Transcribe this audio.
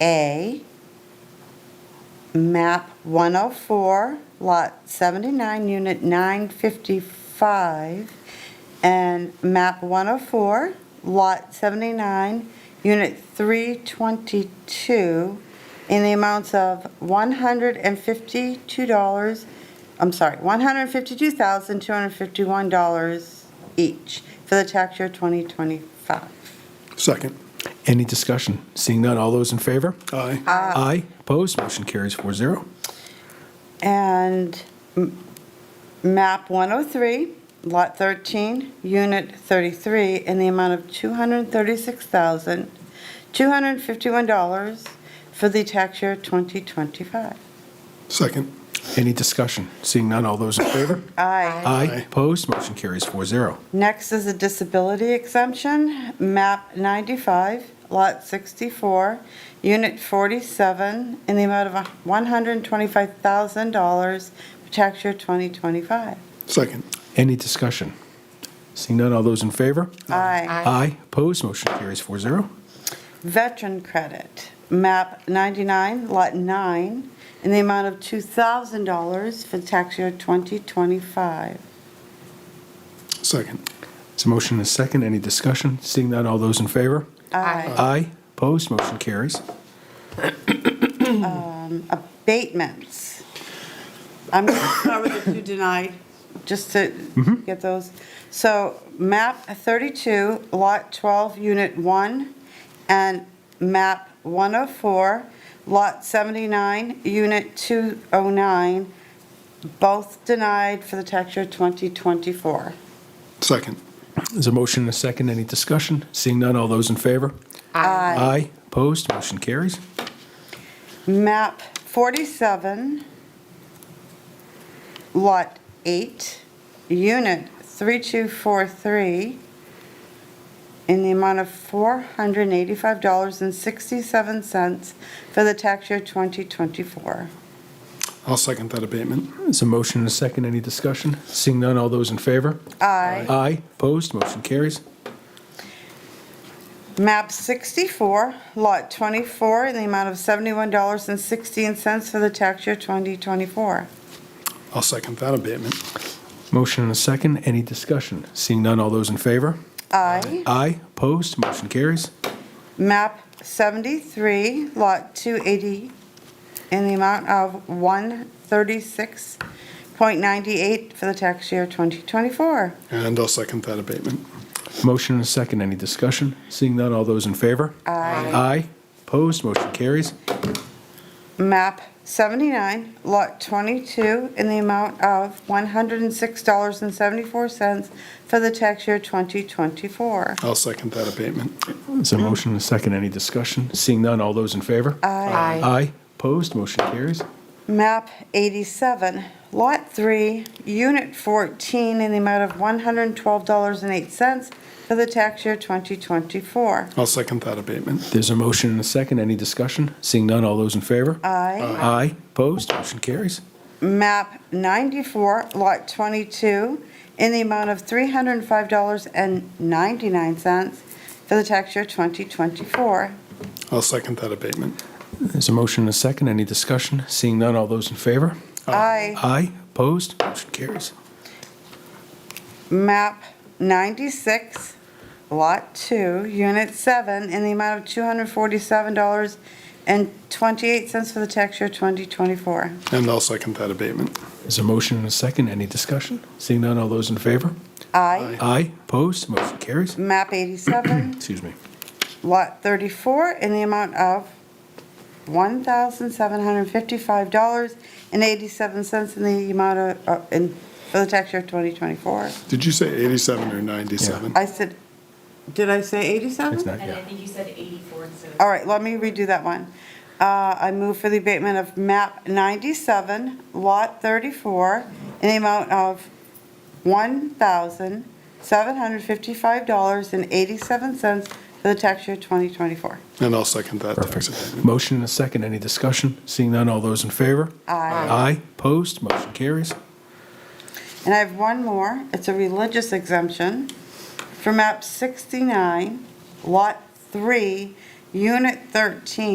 8A, map 104, lot 79, unit 955, and map 104, lot 79, unit 322, in the amounts of $152, I'm sorry, $152,251 each for the tax year 2025. Second. Any discussion? Seeing none, all those in favor? Aye. Aye. Opposed? Motion carries 4-0. And m- map 103, lot 13, unit 33, in the amount of $236,251 for the tax year 2025. Second. Any discussion? Seeing none, all those in favor? Aye. Aye. Opposed? Motion carries 4-0. Next is a disability exemption, map 95, lot 64, unit 47, in the amount of $125,000 for tax year 2025. Second. Any discussion? Seeing none, all those in favor? Aye. Aye. Opposed? Motion carries 4-0. Veteran credit, map 99, lot 9, in the amount of $2,000 for tax year 2025. Second. It's a motion and a second. Any discussion? Seeing none, all those in favor? Aye. Aye. Opposed? Motion carries. Abatements. I'm going to start with the two denied, just to get those. So map 32, lot 12, unit 1, and map 104, lot 79, unit 209, both denied for the tax year 2024. Second. There's a motion and a second. Any discussion? Seeing none, all those in favor? Aye. Aye. Opposed? Motion carries. map 47, lot 8, unit 3243, in the amount of $485.67 for the tax year 2024. I'll second that abatement. There's a motion and a second. Any discussion? Seeing none, all those in favor? Aye. Aye. Opposed? Motion carries. Map 64, lot 24, in the amount of $71.16 for the tax year 2024. I'll second that abatement. Motion and a second. Any discussion? Seeing none, all those in favor? Aye. Aye. Opposed? Motion carries. map 73, lot 280, in the amount of 136.98 for the tax year 2024. And I'll second that abatement. Motion and a second. Any discussion? Seeing none, all those in favor? Aye. Aye. Opposed? Motion carries. Map 79, lot 22, in the amount of $106.74 for the tax year 2024. I'll second that abatement. There's a motion and a second. Any discussion? Seeing none, all those in favor? Aye. Aye. Opposed? Motion carries. Map 87, Lot 3, Unit 14, in the amount of $112.08 for the tax year 2024. I'll second that abatement. There's a motion and a second. Any discussion? Seeing none, all those in favor? Aye. Aye. Opposed? Motion carries. Map 94, Lot 22, in the amount of $305.99 for the tax year 2024. I'll second that abatement. There's a motion and a second. Any discussion? Seeing none, all those in favor? Aye. Aye. Opposed? Motion carries. Map 96, Lot 2, Unit 7, in the amount of $247.28 for the tax year 2024. And I'll second that abatement. There's a motion and a second. Any discussion? Seeing none, all those in favor? Aye. Aye. Opposed? Motion carries. Map 87, Excuse me. Lot 34, in the amount of $1,755.87 in the amount of, uh, in, for the tax year 2024. Did you say 87 or 97? I said, did I say 87? It's not, And I yeah. think you said 84 instead of All right, let me redo that one. Uh, I move for the abatement of map 97, lot 34, in the amount of $1,755.87 for the tax year 2024. And I'll second that tax Perfect. abatement. Motion and a second. Any discussion? Seeing none, all those in favor? Aye. Aye. Opposed? Motion carries. And I have one more. It's a religious exemption for map 69, lot 3, Unit 13